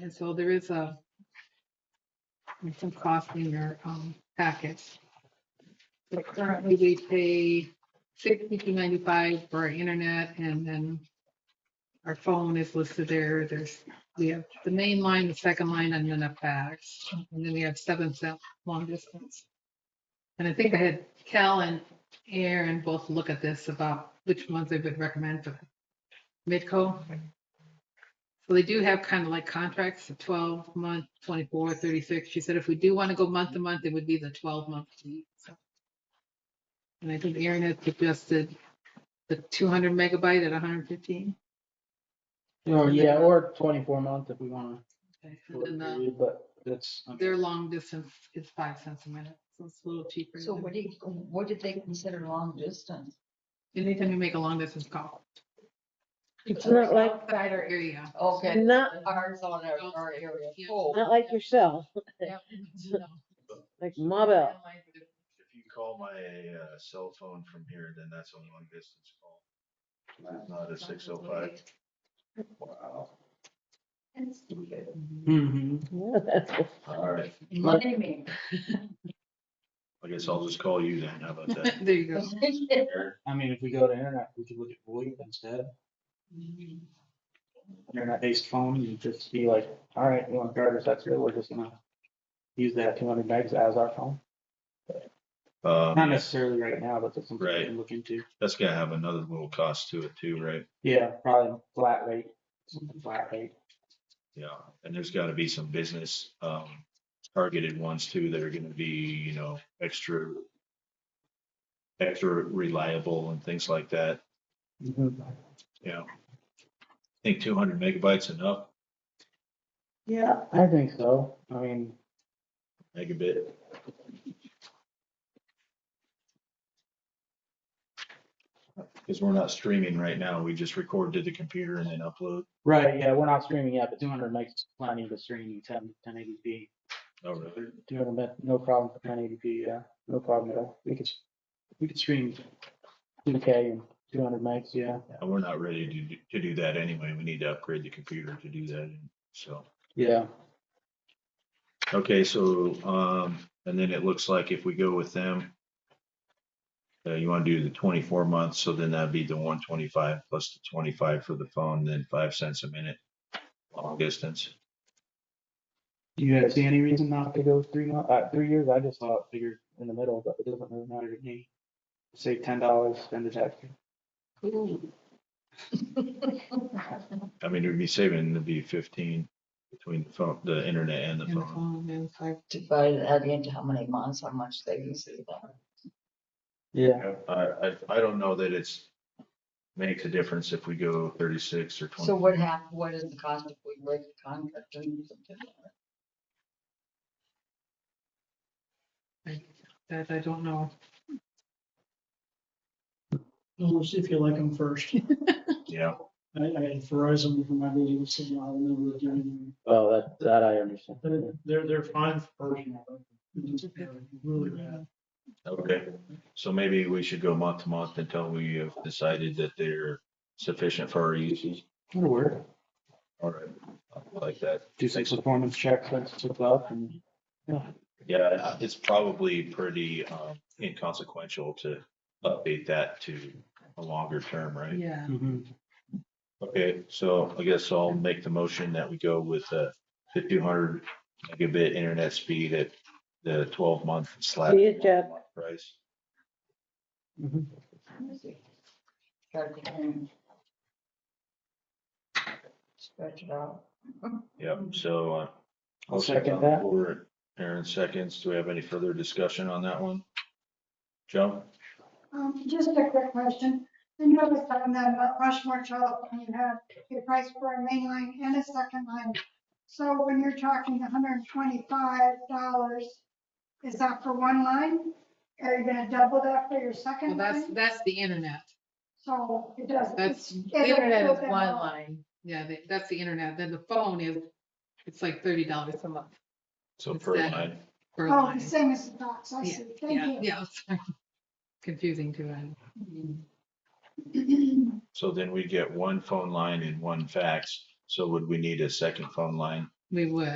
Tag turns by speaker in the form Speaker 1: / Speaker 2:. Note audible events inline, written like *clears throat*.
Speaker 1: And so there is a, there's some cost in your um, packets. But currently, we pay sixty-two ninety-five for our internet, and then our phone is listed there. There's, we have the main line, the second line, and then a fax. And then we have seven cent long distance. And I think I had Cal and Aaron both look at this about which ones they would recommend for Midco. So they do have kind of like contracts, a twelve month, 24, 36. She said if we do want to go month to month, it would be the twelve month. fee, so. And I think Aaron had suggested the two hundred megabyte at hundred fifteen.
Speaker 2: Or, yeah, or twenty-four month if we wanna.
Speaker 1: And
Speaker 2: short
Speaker 1: then the-
Speaker 2: period, But that's,
Speaker 1: their long distance is five cents a minute, so it's a little cheaper.
Speaker 3: So
Speaker 1: than-
Speaker 3: what do you, what did they consider long distance?
Speaker 1: Anytime you make a long distance call.
Speaker 4: It's not like,
Speaker 1: Outside our area.
Speaker 3: Okay,
Speaker 4: not,
Speaker 3: ours on our, our area
Speaker 1: Yeah.
Speaker 3: code.
Speaker 4: not like yourself,
Speaker 1: Yep.
Speaker 4: like Mobile. *laughs*
Speaker 5: If you call my uh, cell phone from here, then that's a long distance call. It's Not a six oh five.
Speaker 2: wow. hmm
Speaker 3: Money
Speaker 5: All right,
Speaker 3: man. *laughs*
Speaker 5: I guess I'll just call you then. How
Speaker 1: *laughs*
Speaker 5: about that?
Speaker 1: There you go.
Speaker 2: I mean, if we go to internet, we could look at VoIP instead, internet-based phone, you just be like, all right, you want Garters, that's good, we're just gonna use that two hundred megs as our phone. Not
Speaker 5: Um,
Speaker 2: necessarily right now, but that's something we
Speaker 5: Right.
Speaker 2: can look into.
Speaker 5: that's gonna have another little cost to it too, right?
Speaker 2: Yeah, probably flat rate, something flat rate.
Speaker 5: Yeah, and there's gotta be some business, um, targeted ones too that are gonna be, you know, extra. Extra reliable and things like that, Yeah, I Think two hundred megabytes enough,
Speaker 2: Yeah, I think so. I mean,
Speaker 5: megabit. Cause we're not streaming right now, we just record to the computer and then upload.
Speaker 2: right, yeah, we're not streaming yet, but two hundred megs is plenty to stream ten, ten eighty P.
Speaker 5: Oh, really?
Speaker 2: Two hundred meg, no problem for ten eighty P, yeah, no problem at all. We could, we could stream two K and two hundred megs, yeah.
Speaker 5: And we're not ready to, do- to do that anyway, we need to upgrade the computer to do that, so.
Speaker 2: Yeah.
Speaker 5: Okay, so, um, and then it looks like if we go with them, uh, you want to do the twenty-four months, so then that'd be the one twenty-five plus the twenty-five for the phone, then five cents a minute long distance.
Speaker 2: You guys see any reason not to go three month, uh, three years? I just thought figured in the middle, but it doesn't really matter to me. Save ten dollars, spend it extra.
Speaker 5: I mean, it would be saving, it'd be fifteen between the phone, the internet and the
Speaker 1: And the
Speaker 5: phone.
Speaker 1: phone and five-
Speaker 3: Divide that into how many months, how much they can see that.
Speaker 2: Yeah.
Speaker 5: I, I, I don't know that it's, makes a difference if we go thirty-six or
Speaker 3: So
Speaker 5: twenty.
Speaker 3: what hap, what is the cost if we break the contract and use it differently?
Speaker 1: That I don't know.
Speaker 6: Well, We'll see if you like them first. *laughs*
Speaker 5: Yeah,
Speaker 6: I, I had Verizon for my meeting with Signal and then we were doing,
Speaker 2: Oh, that, that I understand.
Speaker 6: they're- they're, they're fine for personal. They're Really bad.
Speaker 5: okay. So maybe we should go month to month until we have decided that they're sufficient for our uses.
Speaker 2: That'll work.
Speaker 5: All right, I like that.
Speaker 2: Do six performance checks, that's what's up and.
Speaker 5: Yeah, it's probably pretty um, inconsequential to update that to a longer term, right?
Speaker 1: Yeah.
Speaker 2: Mhm.
Speaker 5: Okay, so I guess I'll make the motion that we go with uh, the two hundred megabit internet speed at the twelve month slash.
Speaker 4: See you, Jeff.
Speaker 5: Price.
Speaker 2: Mhm.
Speaker 3: Let me see. Try to think. Stretch it out.
Speaker 5: Yep, so. uh,
Speaker 2: I'll
Speaker 5: motion
Speaker 2: second
Speaker 5: on the
Speaker 2: that.
Speaker 5: floor. Aaron seconds. Do we have any further discussion on that one? Joe?
Speaker 7: Um, just a quick question. The notice on that about Rushmore telephone, you had a price for a main line and a second line. So when you're talking hundred and twenty-five dollars, is that for one line? Are you gonna double that for your
Speaker 1: Well,
Speaker 7: second
Speaker 1: that's,
Speaker 7: line?
Speaker 1: that's the internet.
Speaker 7: So it does.
Speaker 1: That's, the
Speaker 7: it
Speaker 1: internet is
Speaker 7: goes in
Speaker 1: one
Speaker 7: all-
Speaker 1: line. Yeah, that- that's the internet. Then the phone is, it's like thirty dollars a month
Speaker 5: So
Speaker 1: It's
Speaker 5: per
Speaker 1: that.
Speaker 5: line,
Speaker 1: per
Speaker 7: Oh, the
Speaker 1: line.
Speaker 7: same as the box, I see.
Speaker 1: Yeah,
Speaker 7: Thank
Speaker 1: yeah, sorry. *laughs* Confusing to end.
Speaker 7: you. *clears throat*
Speaker 5: so then we get one phone line and one fax. So would we need a second phone line
Speaker 1: we would.